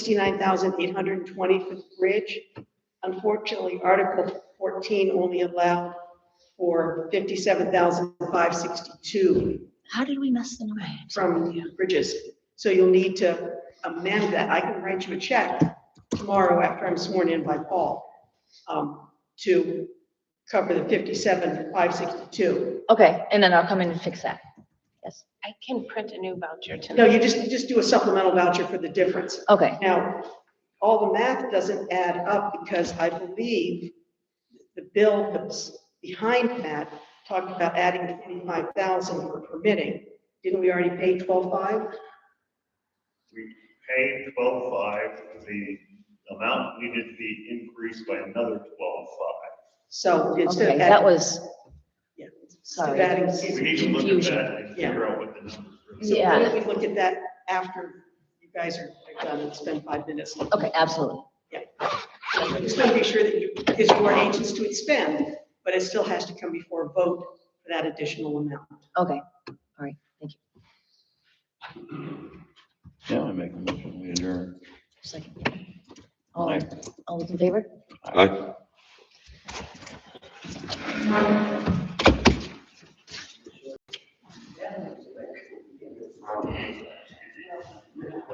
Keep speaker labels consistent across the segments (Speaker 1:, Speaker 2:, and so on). Speaker 1: sixty-nine thousand eight hundred and twenty for the bridge. Unfortunately, Article fourteen only allowed for fifty-seven thousand five sixty-two
Speaker 2: How did we mess the number?
Speaker 1: from bridges. So you'll need to amend that. I can write you a check tomorrow after I'm sworn in by Paul um, to cover the fifty-seven, five sixty-two.
Speaker 2: Okay, and then I'll come in and fix that. Yes,
Speaker 3: I can print a new voucher
Speaker 1: No,
Speaker 3: tonight.
Speaker 1: you just, you just do a supplemental voucher for the difference.
Speaker 2: okay,
Speaker 1: Now, all the math doesn't add up because I believe the bill that's behind that talked about adding twenty-five thousand for permitting. Didn't we already pay twelve-five?
Speaker 4: Pay twelve-five, the amount needed to be increased by another twelve-five.
Speaker 1: So instead
Speaker 2: okay,
Speaker 1: of
Speaker 2: that
Speaker 1: adding,
Speaker 2: was,
Speaker 1: yeah, instead of
Speaker 2: sorry.
Speaker 1: adding.
Speaker 4: We need to look at
Speaker 2: Confusion.
Speaker 4: that and figure out what the numbers
Speaker 1: So why
Speaker 4: really.
Speaker 2: Yeah.
Speaker 1: don't we look at that after you guys are are done and spend five minutes?
Speaker 2: okay, absolutely.
Speaker 1: Just want to be sure that you, because you are agents to expend, but it still has to come before a vote for that additional amount.
Speaker 2: Okay,
Speaker 5: Yeah, I make a motion, we adjourn.
Speaker 2: second. All, all those in favor?
Speaker 6: Aye.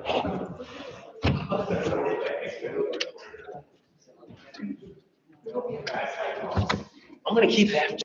Speaker 3: I'm gonna keep that.